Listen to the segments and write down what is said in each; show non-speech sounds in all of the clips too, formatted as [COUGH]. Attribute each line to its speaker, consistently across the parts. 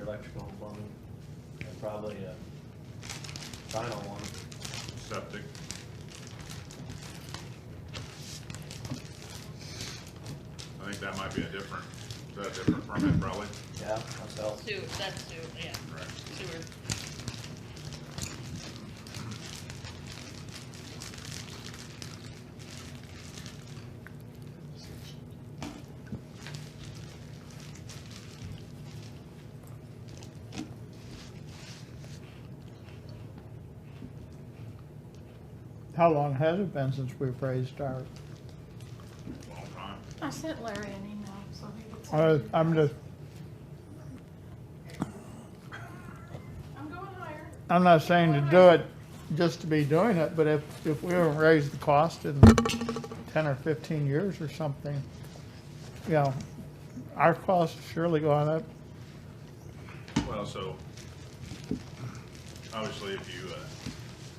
Speaker 1: electrical and plumbing, and probably a final one.
Speaker 2: septic. I think that might be a different, is that a different permit probably?
Speaker 1: Yeah, myself.
Speaker 3: Sewer, that's sewer, yeah,
Speaker 2: Right.
Speaker 3: sewer.
Speaker 4: How long has it been since we've raised our,
Speaker 2: Long time.
Speaker 5: I sent Larry an email, so he would
Speaker 4: I-
Speaker 5: send you.
Speaker 4: uh, I'm just,
Speaker 5: I'm going higher.
Speaker 4: I'm not saying to do it just to be doing it, but if, if we haven't raised the cost in ten or fifteen years or something, you know, our costs surely gone up.
Speaker 2: Well, so, obviously, if you, uh,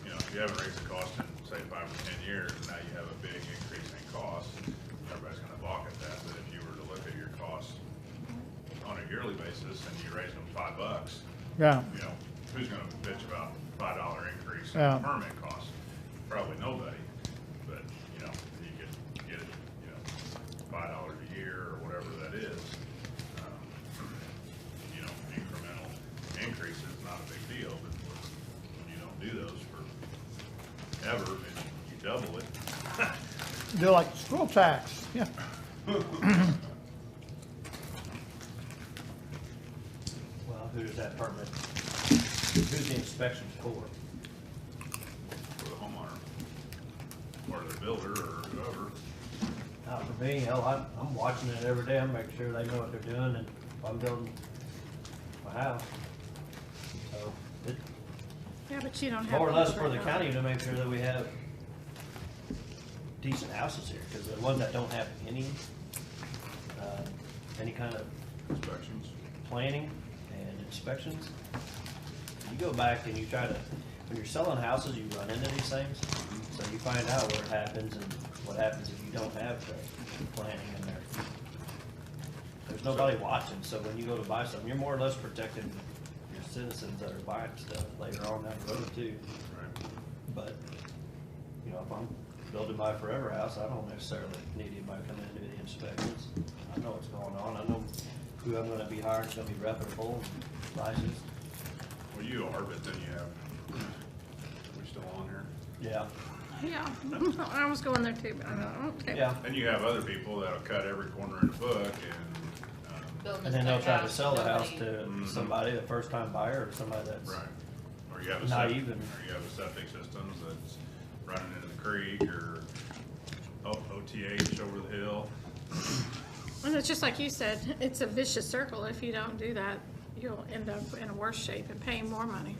Speaker 2: you know, if you haven't raised the cost in, say, five or ten years, now you have a big increase in cost, everybody's gonna balk at that, but if you were to look at your costs on a yearly basis, and you raise them five bucks,
Speaker 4: Yeah,
Speaker 2: you know, who's gonna bitch about five dollar increase in
Speaker 4: Yeah.
Speaker 2: permit cost? Probably nobody, but, you know, you could get it, you know, five dollars a year or whatever that is. um, You know, incremental increase is not a big deal, but when you don't do those for ever, and you double it,
Speaker 4: do like school tax, yeah.
Speaker 1: Well, who does that permit? Who's the inspection for?
Speaker 2: for the homeowner, or the builder, or whoever,
Speaker 1: Not for me, hell, I'm, I'm watching it every day, I'm making sure they know what they're doing, and if I'm building my house. So, it's
Speaker 5: Yeah, but you don't have.
Speaker 1: more or less for
Speaker 5: those
Speaker 1: the
Speaker 5: right now.
Speaker 1: county to make sure that we have decent houses here, because the ones that don't have any, uh, any kind of
Speaker 2: inspections.
Speaker 1: planning and inspections. You go back and you try to, when you're selling houses, you run into these things, so you find out where it happens and what happens if you don't have the planning in there. There's nobody watching, so when you go to buy something, you're more or less protecting your citizens that are buying stuff later on down the road too.
Speaker 2: Right.
Speaker 1: But, you know, if I'm building my forever house, I don't necessarily need anybody coming in to do the inspections. I know what's going on, I know who I'm gonna be hiring, is gonna be reputable, licensed,
Speaker 2: Well, you are, but then you have, we still on here?
Speaker 1: yeah,
Speaker 5: Yeah, [LAUGHS] I was going there too, but I don't, okay.
Speaker 1: yeah.
Speaker 2: And you have other people that'll cut every corner in the book and, um,
Speaker 3: Building
Speaker 1: And then they'll try to
Speaker 3: house,
Speaker 1: sell the house
Speaker 3: nobody-
Speaker 1: to somebody, a first-time buyer, or somebody that's.
Speaker 2: right. Or you have a
Speaker 1: Not
Speaker 2: septic,
Speaker 1: even.
Speaker 2: or you have a septic system that's running into the creek or O- OTH over the hill.
Speaker 5: And it's just like you said, it's a vicious circle. If you don't do that, you'll end up in a worse shape and paying more money.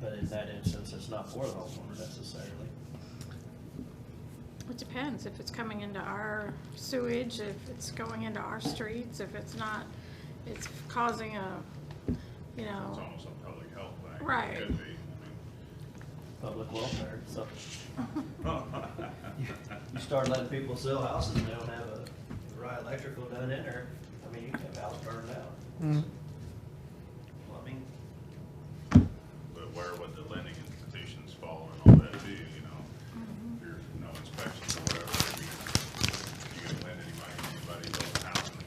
Speaker 1: But in that instance, it's not for the homeowner necessarily.
Speaker 5: It depends if it's coming into our sewage, if it's going into our streets, if it's not, it's causing a, you
Speaker 2: It's
Speaker 5: know,
Speaker 2: almost a public health thing. It
Speaker 5: Right.
Speaker 2: Could be. [LAUGHS] I
Speaker 1: Public welfare, so
Speaker 2: mean,
Speaker 1: you start letting people sell houses and they don't have a right electrical done in there, I mean, you can have a house burned out.
Speaker 4: Mm.
Speaker 1: Plumbing,
Speaker 2: But where would the lending institutions fall and all that be, you know? If There's no inspections or whatever. You you can lend anybody, anybody building a house in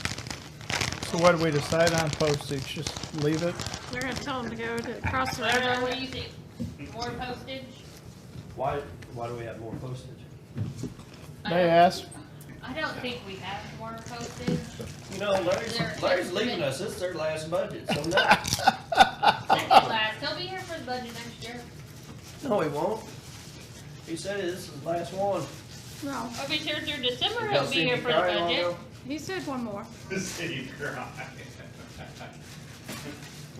Speaker 2: the county. [LAUGHS]
Speaker 4: So what do we decide on postage? Just leave it?
Speaker 5: we're gonna tell them to go to across the
Speaker 3: Larry, what
Speaker 5: river.
Speaker 3: do you think? More postage?
Speaker 1: why, why do we have more postage?
Speaker 3: I
Speaker 4: They
Speaker 3: don't-
Speaker 4: asked,
Speaker 3: I don't think we have more postage.
Speaker 1: You know, Larry's,
Speaker 3: Their
Speaker 1: Larry's
Speaker 3: estimate.
Speaker 1: leaving us, it's their last budget, so [LAUGHS] no,
Speaker 3: Second last, he'll be here for the budget next year.
Speaker 1: no, he won't. He said this is his last one.
Speaker 5: No,
Speaker 3: I'll be here through December,
Speaker 1: Y'all
Speaker 3: he'll be
Speaker 1: seen
Speaker 3: here
Speaker 1: me
Speaker 3: for the
Speaker 1: cry long
Speaker 3: budget.
Speaker 1: ago?
Speaker 5: he said one more.
Speaker 2: The city cry.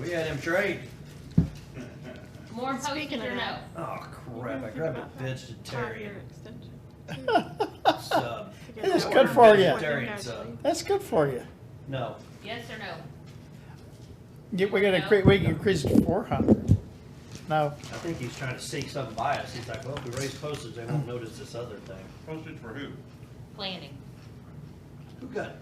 Speaker 1: We had him trade.
Speaker 3: More postage
Speaker 5: Speaking of
Speaker 3: or no?
Speaker 5: that.
Speaker 1: Oh crap, I
Speaker 3: [LAUGHS]
Speaker 1: grabbed a
Speaker 5: Five-year
Speaker 1: vegetarian
Speaker 5: extension.
Speaker 1: sub.
Speaker 4: That's good for you.
Speaker 1: Vegetarian sub,
Speaker 4: that's good for you.
Speaker 1: no,
Speaker 3: Yes or no?
Speaker 4: Get, we gotta, cre- we can increase it to four hundred. No,
Speaker 1: I think he's trying to seek some bias, he's like, well, if we raise postage, they won't notice this other thing.
Speaker 2: Postage for who?
Speaker 3: Planning.
Speaker 1: Who got